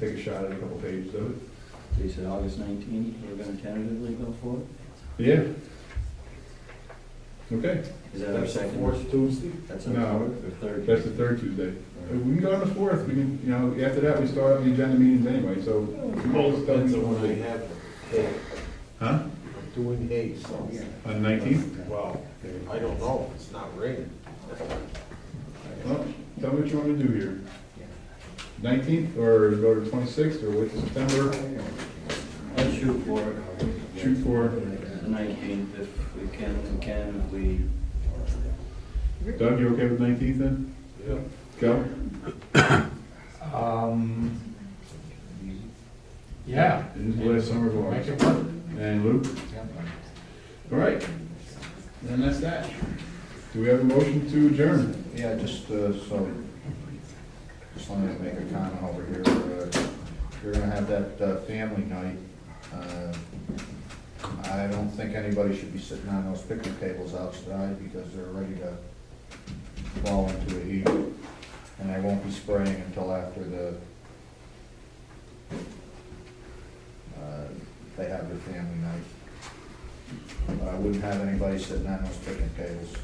take a shot at a couple pages of it. So you said August nineteenth, we're gonna tentatively go for it? Yeah. Okay, Is that our second? Fourth Tuesday? That's our no, third? that's the third Tuesday. Uh, We can go on the fourth, we can, you know, after that, we start the agenda meetings anyway, so. That's the one I have. Hey, Huh? I'm Doing hay, so, On the nineteenth? well, I don't know, it's not raining. Well, tell me what you want to do here. Nineteenth, or go to twenty-sixth, or wait till September, Let's shoot for it, shoot for, the nineteenth, if we can, we can, if we, Doug, you okay with nineteenth then? Yeah. Go? Um, yeah, It is the last summer of make ours. it work. And Luke? All right. And that's that. Do we have a motion to adjourn? Yeah, just, uh, so, just wanted to make a comment over here. Uh, You're gonna have that, uh, family night. Uh, I don't think anybody should be sitting on those picnic tables outside because they're ready to fall into a heap. And I won't be spraying until after the, uh, they have their family night. But I wouldn't have anybody sitting on those picnic tables.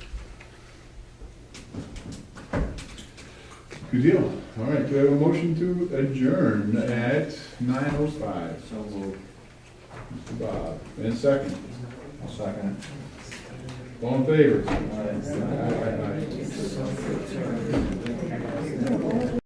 Good deal. All right, do we have a motion to adjourn at nine oh five? so we'll, Mr. Bob, and second. I'll second it. All in favor? uh, Aye, aye, aye.